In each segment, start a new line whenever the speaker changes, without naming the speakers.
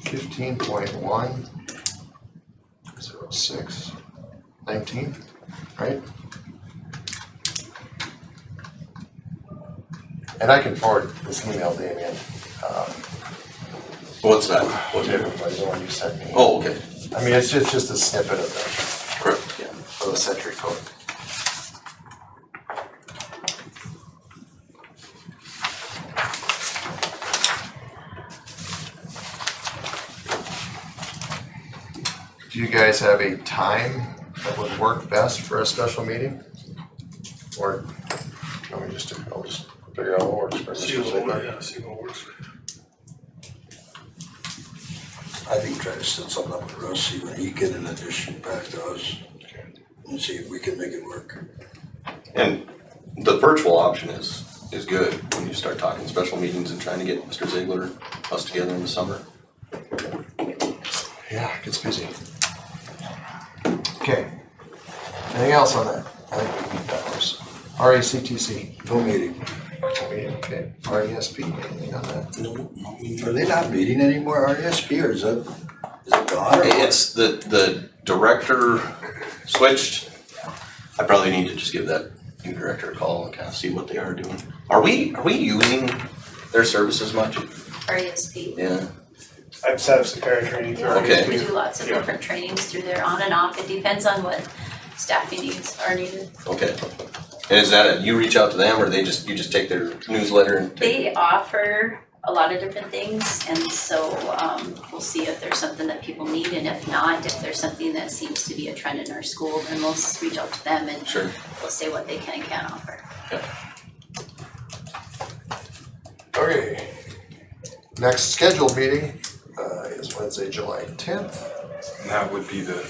fifteen point one zero six nineteen, right? And I can forward this email, Damien, um,
What's that? What
to
table?
everybody, the one you sent me.
Oh, okay,
I mean, it's just, just a snippet of the,
correct, yeah.
of the century code. Do you guys have a time that would work best for a special meeting? Or, let me just, do- I'll just figure out what works for this.
See what, works, yeah, see what works.
I think try to set something up with Russ, see when he get an addition back to us. And see if we can make it work.
And the virtual option is, is good when you start talking special meetings and trying to get Mr. Ziegler, us together in the summer.
Yeah, it gets busy. Okay. Anything else on that? I think we need that was RACTC.
No meeting.
Okay, RESP, E anything on that?
Are they not meeting anymore, RSP, or is that, is it gone or what?
It's the, the director switched. I probably need to just give that new director a call and kind of see what they are doing. Are we, are we using their services much?
E RESP.
Yeah,
I've set up some paratraining through
Okay.
RSP.
We do lots of
Yeah.
different trainings through there, on and off, it depends on what staffing needs are needed.
okay. And is that a, you reach out to them or they just, you just take their newsletter and take?
They offer a lot of different things, and so, um, we'll see if there's something that people need, and if not, if there's something that seems to be a trend in our school, then we'll s- reach out to them and
Sure.
we'll say what they can and can't offer.
Okay. Next scheduled meeting uh, is Wednesday, July tenth,
And that would be the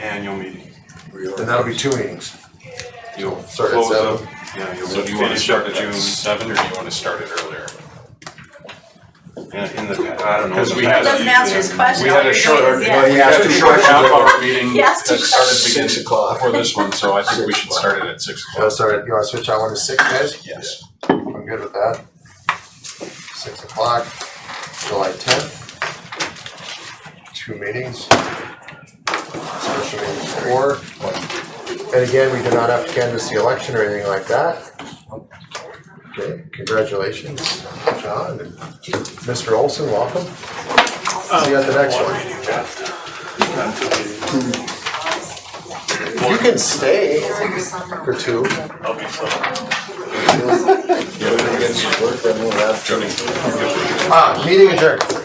annual meeting.
and that'll be two meetings.
You'll
Start at
close up,
seven.
yeah, you'll
So do you wanna
finish
start
up
at
June.
June seven or do you wanna start it earlier?
Yeah, in the, I don't know.
Because
in
we
the
had
past,
a- Doesn't
answer his question,
We
all
had
you're
a short,
doing is
we
yeah.
Well, you
had
have
a
to
short
short-
half hour meeting
He
that
asked to
started beginning
Six o'clock.
for this one, so I think we should start it at six
Oh,
o'clock.
sorry, you wanna switch out one to six, guys?
Yes.
I'm good with that. Six o'clock, July tenth. Two meetings. Special meeting four. And again, we do not have to canvass the election or anything like that. Okay, congratulations, John. and Mr. Olson, welcome. See you at the next one. You can stay for two.
Yeah, we can get some work done on that.
Ah, meeting adjourned.